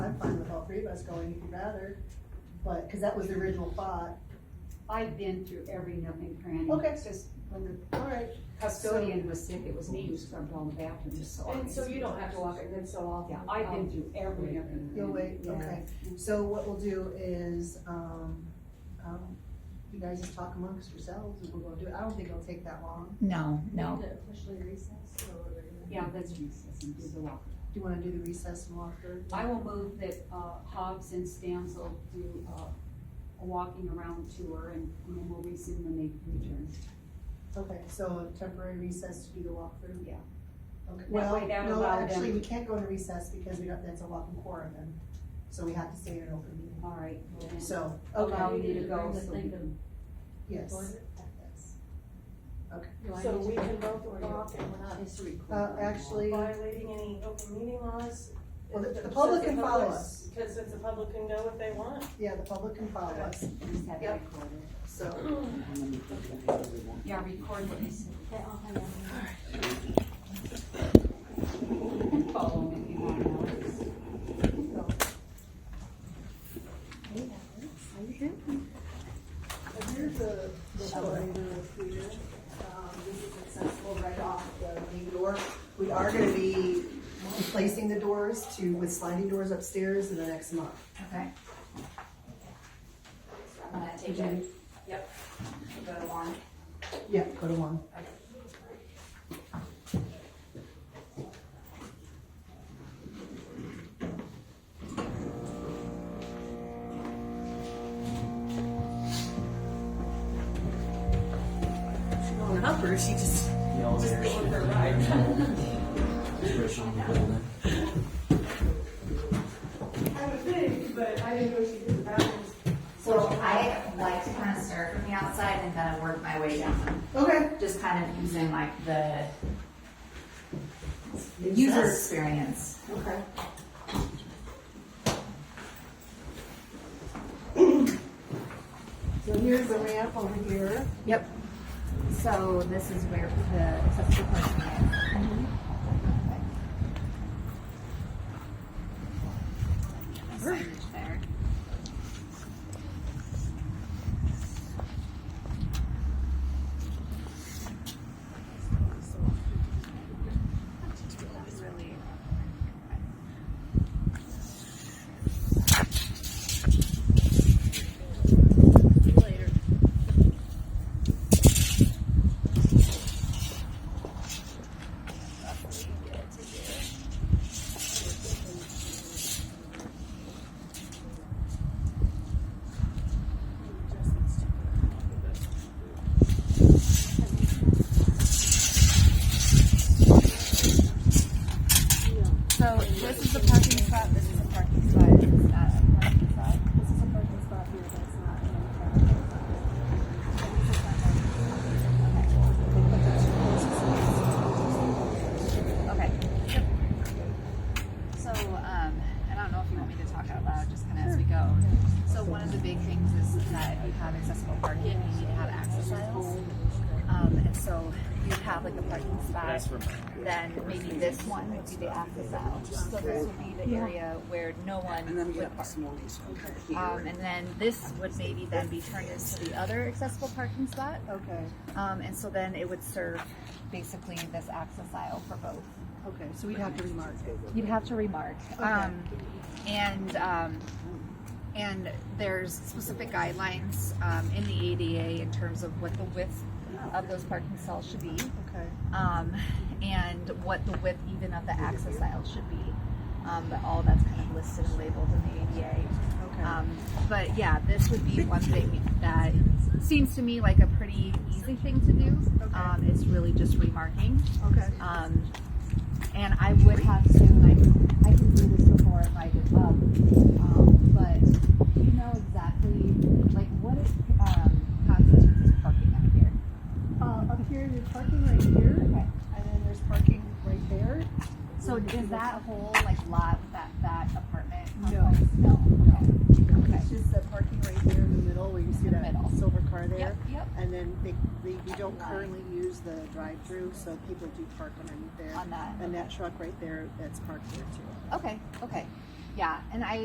us going, if you'd rather, but, cause that was the original thought. I've been through every nook and cranny. Okay. It's just when the Alright, custodian was sick, it was me who scrubbed all the bathrooms, so. I And so you don't have to walk it in so often. Yeah, I've been through every nook and cranny. you'll wait, okay. So what we'll do is, um, um, you guys just talk amongst yourselves, and we're gonna do it. I don't think it'll take that long. No, no. Officially recessed or whatever. Yeah, that's recess and do the walk. Do you wanna do the recess and walk through? I will move that, uh, Hobbs and Stansel do, uh, a walking around tour and and then we'll resume when they return. Okay, so a temporary recess to do the walkthrough? Yeah. Okay, That well, way that no, allowed them- actually, we can't go into recess because we don't, that's a walking quorum then, so we have to stay in an open meeting. All right. well, then So, Allow okay, you to go so we Think can. yes. So we can both walk and we're not Uh, actually, violating any open meeting laws. Well, the- the Since public can follow public's- us. Because if the public can go if they want. yeah, the public can follow us, Just have it Yep. recorded. so, Yeah, record what you said. And follow them if you want, Alex. and here's the, the calendar for you. Um, this is accessible right off the main door. We are gonna be replacing the doors to, with sliding doors upstairs in the next month. Okay. I'm gonna take it, yep, go to one. Yeah, go to one. She's going up or is she just? Just being for a I ride. would think, but I didn't know she did that. So I like to kind of start from the outside and kind of work my way down, Okay. just kind of using like the the user experience. Okay. So here's the ramp over here. Yep. So this is where the accessible person is. Signage there. So this is the parking spot, this is a parking spot, this is not a parking spot. This is a parking spot here, that's not a parking spot. Okay. So, um, I don't know if you want me to talk out loud, just kind of as we go. So one of the big things is that if you have accessible parking, you need to have access aisles. Um, and so you have like a parking spot, then maybe this one would be the access aisle. So this would be the area where no one would park. Um, and then this would maybe then be turned into the other accessible parking spot. Okay, Um, and so then it would serve basically this access aisle for both. okay, so we'd have to remark. You'd have to remark. Um, and, um, and there's specific guidelines, um, in the ADA in terms of what the width of those parking stalls should be. Okay. Um, and what the width even of the access aisle should be. Um, but all that's kind of listed and labeled in the ADA. Okay. Um, but yeah, this would be one thing that seems to me like a pretty easy thing to do. Okay. Um, it's really just remarking. Okay. Um, and I would have to, and I, I can do this before if I give up, um, but you know exactly, like, what is, um, constitutes parking out here? Uh, up here, there's parking right here, Okay. and then there's parking right there. So is that whole, like, lot, that, that apartment No. complex? No. No. Okay. It's just the parking right there in the middle where you see In the that middle. silver car there. Yep, yep, And then they, they, we don't currently use the drive-through, so people do park underneath there. on that. And that truck right there, that's parked there too. Okay, okay. Yeah, and I,